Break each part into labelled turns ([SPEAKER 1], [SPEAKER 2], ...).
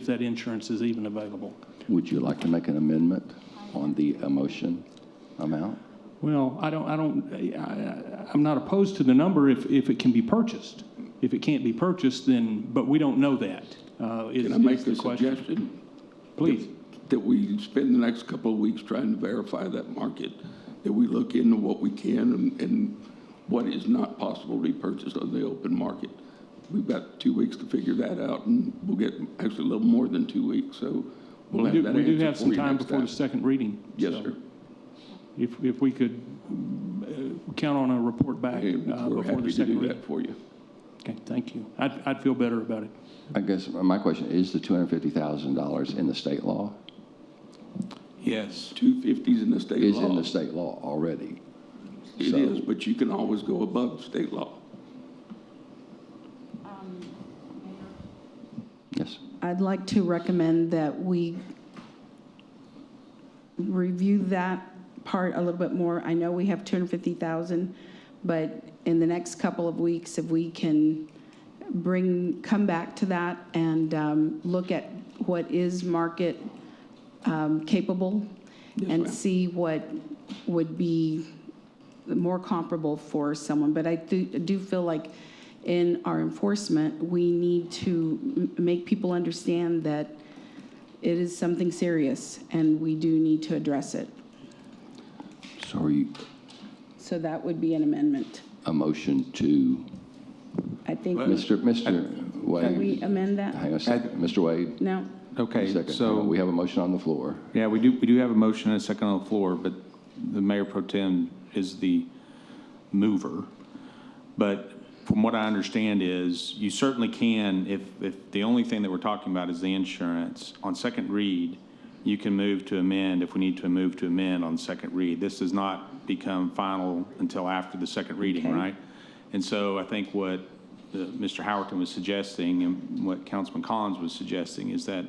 [SPEAKER 1] if that insurance is even available.
[SPEAKER 2] Would you like to make an amendment on the uh, motion amount?
[SPEAKER 1] Well, I don't, I don't, I- I, I'm not opposed to the number if, if it can be purchased. If it can't be purchased, then, but we don't know that. uh,
[SPEAKER 3] Can I make a suggestion?
[SPEAKER 1] Please.
[SPEAKER 3] That we spend the next couple of weeks trying to verify that market, that we look into what we can and, and what is not possible to be purchased on the open market. We've got two weeks to figure that out, and we'll get actually a little more than two weeks, so we'll
[SPEAKER 1] We
[SPEAKER 3] have
[SPEAKER 1] do,
[SPEAKER 3] that
[SPEAKER 1] we do
[SPEAKER 3] answer
[SPEAKER 1] have
[SPEAKER 3] for
[SPEAKER 1] some
[SPEAKER 3] you
[SPEAKER 1] time
[SPEAKER 3] next
[SPEAKER 1] before the second reading.
[SPEAKER 3] Yes,
[SPEAKER 1] so
[SPEAKER 3] sir.
[SPEAKER 1] If, if we could uh, count on a report back
[SPEAKER 3] And
[SPEAKER 1] uh,
[SPEAKER 3] we're
[SPEAKER 1] before the
[SPEAKER 3] happy to
[SPEAKER 1] second
[SPEAKER 3] do that
[SPEAKER 1] reading.
[SPEAKER 3] for you.
[SPEAKER 1] Okay, thank you. I'd, I'd feel better about it.
[SPEAKER 2] I guess my question, is the $250,000 in the state law?
[SPEAKER 4] Yes,
[SPEAKER 3] Two fifties in the state
[SPEAKER 2] Is in
[SPEAKER 3] law.
[SPEAKER 2] the state law already?
[SPEAKER 3] It
[SPEAKER 2] so-
[SPEAKER 3] is, but you can always go above state law.
[SPEAKER 2] Yes.
[SPEAKER 5] I'd like to recommend that we review that part a little bit more. I know we have 250,000, but in the next couple of weeks, if we can bring, come back to that and um, look at what is market um, capable
[SPEAKER 3] Yes,
[SPEAKER 5] and
[SPEAKER 3] ma'am.
[SPEAKER 5] see what would be more comparable for someone. But I do, do feel like in our enforcement, we need to m- make people understand that it is something serious and we do need to address it.
[SPEAKER 2] So are you,
[SPEAKER 5] So that would be an amendment.
[SPEAKER 2] a motion to,
[SPEAKER 5] I think,
[SPEAKER 2] Mr. Mr.
[SPEAKER 5] can we
[SPEAKER 2] Wade?
[SPEAKER 5] amend that?
[SPEAKER 2] Hang on a second, Mr. Wade?
[SPEAKER 5] No?
[SPEAKER 2] a
[SPEAKER 4] okay,
[SPEAKER 2] second.
[SPEAKER 4] so,
[SPEAKER 2] We have a motion on the floor.
[SPEAKER 4] yeah, we do, we do have a motion and a second on the floor, but the mayor pro tem is the mover. But from what I understand is, you certainly can, if, if the only thing that we're talking about is the insurance, on second read, you can move to amend if we need to move to amend on second read. This does not become final until after the second reading,
[SPEAKER 5] Okay.
[SPEAKER 4] right? And so I think what the- Mr. Howerton was suggesting and what Councilman Collins was suggesting is that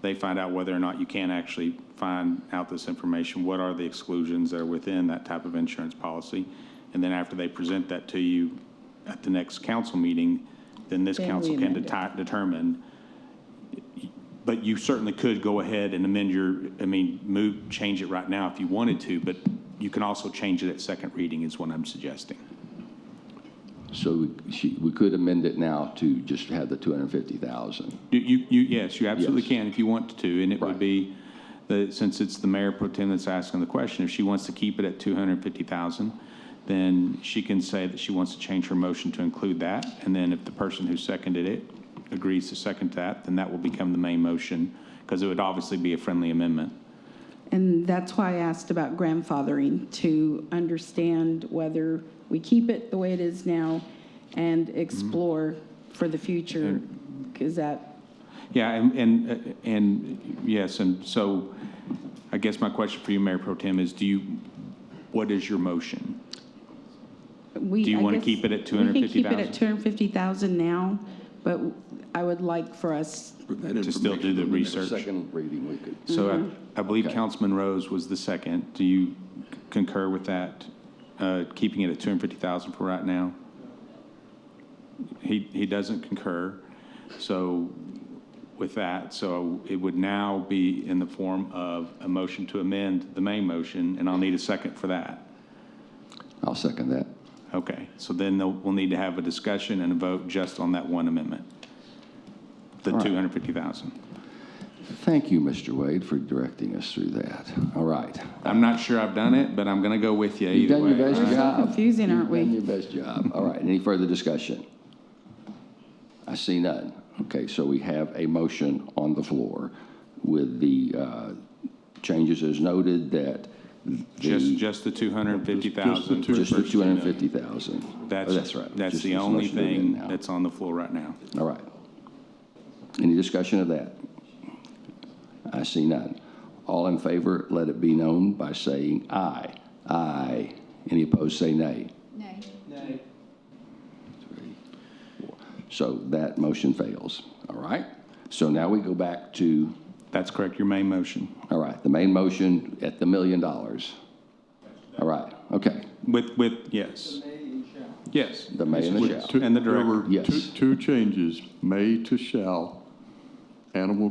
[SPEAKER 4] they find out whether or not you can actually find out this information. What are the exclusions that are within that type of insurance policy? And then after they present that to you at the next council meeting, then this
[SPEAKER 5] Then we
[SPEAKER 4] council can
[SPEAKER 5] amend it.
[SPEAKER 4] deti- determine. But you certainly could go ahead and amend your, I mean, move, change it right now if you wanted to, but you can also change it at second reading is what I'm suggesting.
[SPEAKER 2] So we- she- we could amend it now to just have the 250,000.
[SPEAKER 4] You- You, you, yes, you absolutely
[SPEAKER 2] Yes.
[SPEAKER 4] can if you want to, and it
[SPEAKER 2] Right.
[SPEAKER 4] would be, the- since it's the mayor pro tem that's asking the question, if she wants to keep it at 250,000, then she can say that she wants to change her motion to include that, and then if the person who seconded it agrees to second that, then that will become the main motion, because it would obviously be a friendly amendment.
[SPEAKER 5] And that's why I asked about grandfathering, to understand whether we keep it the way it is now and explore for the future. Is that,
[SPEAKER 4] Yeah, and, and, and, yes, and so, I guess my question for you, Mayor pro tem, is do you, what is your motion?
[SPEAKER 5] we.
[SPEAKER 4] Do you
[SPEAKER 5] I
[SPEAKER 4] wanna
[SPEAKER 5] guess
[SPEAKER 4] keep it at
[SPEAKER 5] We can keep it at
[SPEAKER 4] 250,000?
[SPEAKER 5] 250,000 now, but I would like for us,
[SPEAKER 3] for that
[SPEAKER 4] To still do
[SPEAKER 3] information
[SPEAKER 4] the
[SPEAKER 3] on next-
[SPEAKER 4] research?
[SPEAKER 2] Second reading, we could.
[SPEAKER 4] So I, I believe
[SPEAKER 2] Mm-hmm. Okay.
[SPEAKER 4] Councilman Rose was the second. Do you concur with that, uh, keeping it at 250,000 for right now? He, he doesn't concur, so with that, so it would now be in the form of a motion to amend the main motion, and I'll need a second for that.
[SPEAKER 2] I'll second that.
[SPEAKER 4] Okay, so then they'll- we'll need to have a discussion and a vote just on that one amendment, the
[SPEAKER 2] All right.
[SPEAKER 4] 250,000.
[SPEAKER 2] Thank you, Mr. Wade, for directing us through that. All right.
[SPEAKER 4] I'm not sure I've done it, but I'm going to go with you
[SPEAKER 2] You've
[SPEAKER 4] either
[SPEAKER 2] done
[SPEAKER 4] way.
[SPEAKER 2] your best
[SPEAKER 5] We're so
[SPEAKER 2] job.
[SPEAKER 5] confusing, aren't we?
[SPEAKER 2] You've done your best job. All right, any further discussion? I see none. Okay, so we have a motion on the floor with the uh, changes as noted that
[SPEAKER 4] Just,
[SPEAKER 2] the,
[SPEAKER 4] just the 250,000. for
[SPEAKER 2] just the
[SPEAKER 4] first two million.
[SPEAKER 2] 250,000. Oh,
[SPEAKER 4] That's,
[SPEAKER 2] That's right.
[SPEAKER 4] That's
[SPEAKER 2] Just
[SPEAKER 4] the
[SPEAKER 2] this
[SPEAKER 4] only
[SPEAKER 2] motion to amend
[SPEAKER 4] thing
[SPEAKER 2] now.
[SPEAKER 4] that's on the floor right now.
[SPEAKER 2] All right. Any discussion of that? I see none. All in favor, let it be known by saying aye. Aye. Any opposed, say nay.
[SPEAKER 6] Nay.
[SPEAKER 2] So that motion fails, all right? So now we go back to,
[SPEAKER 4] That's correct, your main motion,
[SPEAKER 2] all right, the main motion at the million dollars. All right, okay,
[SPEAKER 4] with, with, yes. Yes.
[SPEAKER 2] the may and the shall.
[SPEAKER 4] And the
[SPEAKER 7] There
[SPEAKER 4] director.
[SPEAKER 7] were two-
[SPEAKER 2] Yes.
[SPEAKER 7] Two changes, may to shall, animal